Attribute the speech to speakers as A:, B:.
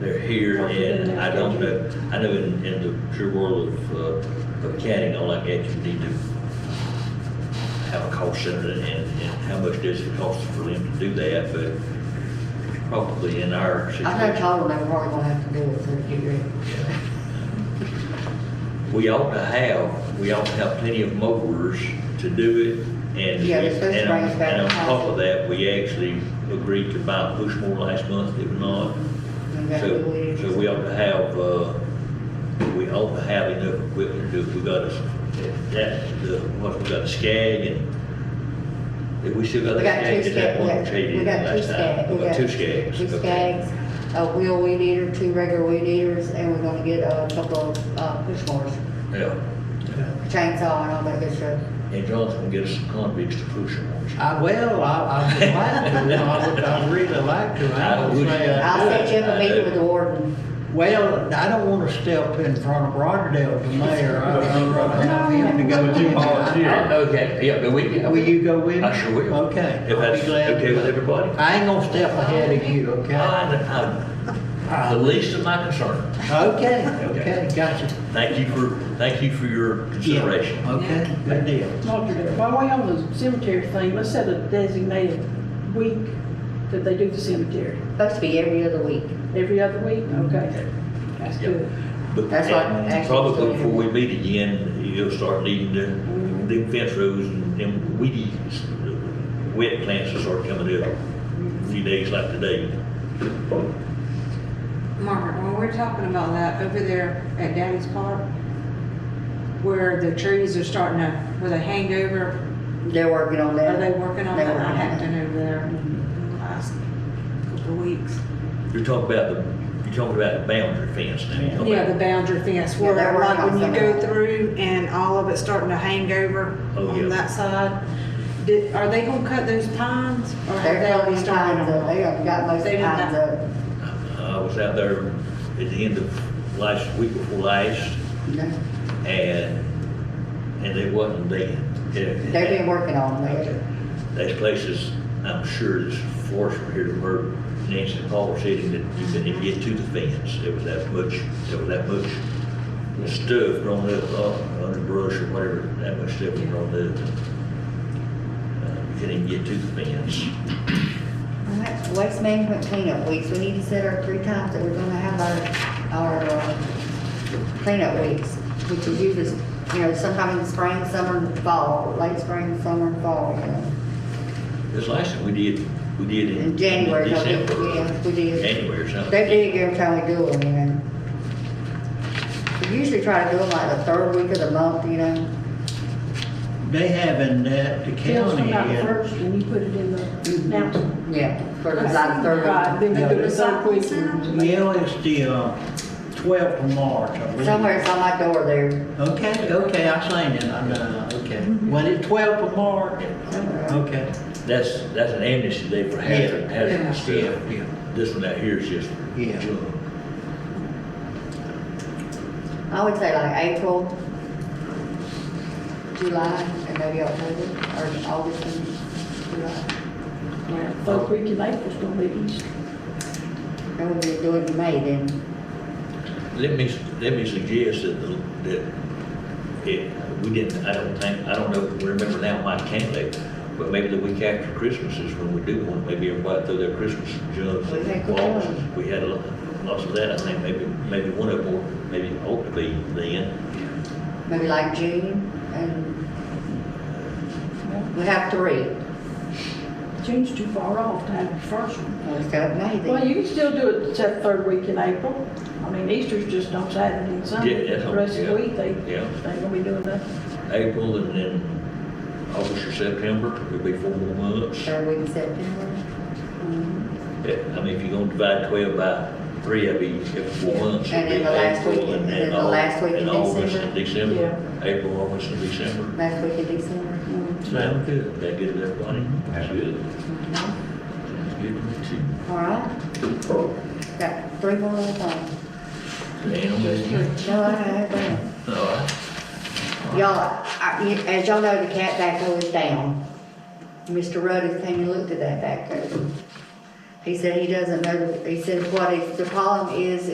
A: they're here, and I don't know, I know in, in the true world of, uh, of catting, all like that, you need to have a call center and, and how much does it cost for them to do that, but probably in our
B: I know
A: situation.
B: Todd and I are probably gonna have to do it, so get ready.
A: We ought to have, we ought to have plenty of mowers to do it, and.
B: Yeah,
A: we-
B: this is
A: and on-
B: brings back
A: And on
B: the
A: top of that, we actually agreed to buy a push mower last month, did we not?
B: We got the
A: So,
B: weeds.
A: so we ought to have, uh, we ought to have enough equipment to do, we got a, that, the, what, we got a skag and, did we still got the
B: We got two
A: skag? Is that
B: skags,
A: one
B: we
A: traded in
B: got two
A: last time?
B: skags.
A: We uh, got two skags.
B: Two
A: okay.
B: skags, a wheel weed eater, two regular weed eaters, and we're gonna get a couple of, uh, push mowers,
A: Yeah.
B: chainsaw and all that good stuff.
A: And John's gonna get us some convicts to push them on.
C: I, well, I, I would like to, I would, I'd really like to, I
A: I
C: don't
A: would.
C: say
B: I'll
C: I do.
B: set you up a
A: I do.
B: meeting with the warden.
C: Well, I don't wanna step in front of Roderdale, the mayor, I don't want him to go.
D: Would you volunteer?
A: I- Okay, yeah, but we can.
C: Will you go with me?
A: I sure will.
C: Okay.
A: If
C: I'll be
A: that's
C: glad to
A: okay with
C: go.
A: everybody.
C: I ain't gonna step ahead of you, okay?
A: I, I, the least of my concern.
C: Okay,
A: Okay.
C: okay, gotcha.
A: Thank you for, thank you for your
C: Yeah,
A: consideration.
C: Okay, good deal.
E: Dr. Dale, while we're on the cemetery thing, let's set a designated week that they do the cemetery.
B: Supposed to be every other week.
E: Every other week? Okay. That's
A: Yep.
E: good.
A: But
B: That's what
A: and
B: actually-
A: probably before we meet again, you'll start needing to, them fence rows and them weedy, s- wet plants will start coming up. A few days like today.
F: Margaret, when we're talking about that over there at Daddy's Park, where the trees are starting to, where they hang over,
B: They're working on that.
F: are they working on
B: They're
F: that? I
B: working that.
F: haven't been over there in the last couple of weeks.
A: You're talking about the, you're talking about the boundary fence now. You're talking
F: Yeah,
A: about-
F: the boundary fence,
B: Yeah, they're
F: where
B: working
F: like
B: on
F: when you
B: some of
F: go
B: that.
F: through and all of it's starting to hang over
A: Oh, yeah.
F: on that side. Did, are they gonna cut those pines? or have
B: They're
F: they already
B: cutting
F: started
B: pines up. They have got most
F: They did
B: pines
F: that.
B: up.
A: I was out there at the end of last, week before last,
B: No,
A: and, and they wasn't there. They've
B: They've been working on
A: Okay.
B: that.
A: There's places, I'm sure there's forest from here to where Nancy and Paul were sitting that you couldn't even get to the fence. There was that much, there was that much stuff growing up, uh, underbrush or whatever, that much stuff was grown up. Uh, You couldn't even get to the fence.
B: All right, Waste management cleanup weeks, we need to set our three times that we're gonna have our, our uh, cleanup weeks, which is usually, you know, sometime in the spring, summer, and fall, late spring, summer, and fall, you know.
A: This last time we did, we did in
B: In January, don't we?
A: December.
B: Yeah, we did.
A: January or something.
B: They dig every time we do them, you know. We usually try to do them like the third week of the month, you know.
C: They having that, the
E: Tell us
C: county,
E: about
C: uh,
E: first and you put it in the announcement.
B: Yeah, for the like third
E: Right,
B: week.
E: Then you do the third week.
C: Yeah, it's the uh, twelfth of March, I believe.
B: Somewhere it's on my door there.
C: Okay, okay, I seen it, I know, okay. Well, it's twelfth of March,
B: somewhere.
C: okay.
A: That's, that's an amnesty day for hazard, hazard stuff. This one out here is just
C: Yeah.
A: junk.
B: I would say like April, July, and maybe October, or August and July.
E: Yeah, Third week in April's gonna be Easter.
B: And we'll be doing it in May then.
A: Let me, let me suggest that, the- that it, we didn't, I don't think, I don't know, remember now my candidate, but maybe the week after Christmas is when we do one, maybe everybody throw their Christmas jobs
B: We
A: and
B: had good
A: balls.
B: ones.
A: We had a lot, lots of that, I think, maybe, maybe one of them, maybe ought to be then.
B: Maybe like June and we have three.
E: June's too far off to have the first one.
B: Well, it's got May
E: Well,
B: then.
E: you can still do it that third week in April. I mean, Easter's just on Saturday and Sunday.
A: Yeah, that's
E: The
A: on-
E: rest of the
A: yeah,
E: week, they, they
A: yeah.
E: ain't gonna be doing nothing.
A: April and then August or September, it'd be four more months.
B: Third week in September.
A: Yeah, I mean, if you're gonna divide twelve by three, that'd be every four months.
B: And then the last week-
A: April
B: and then the
A: Au-
B: last week in
A: And August and
E: December.
A: December, April, August and December.
B: Last week in December.
C: Sound good. Mm-hmm.
A: That good enough, Bonnie? That's good. Sounds good to me too.
B: All right? Got three more little things.
A: Animals.
B: No, I have that.
A: All right.
B: Y'all, I- you- as y'all know, the cat backhoe is down. Mr. Rudd has came and looked at that backhoe. He said he doesn't know, he said what his- the problem is,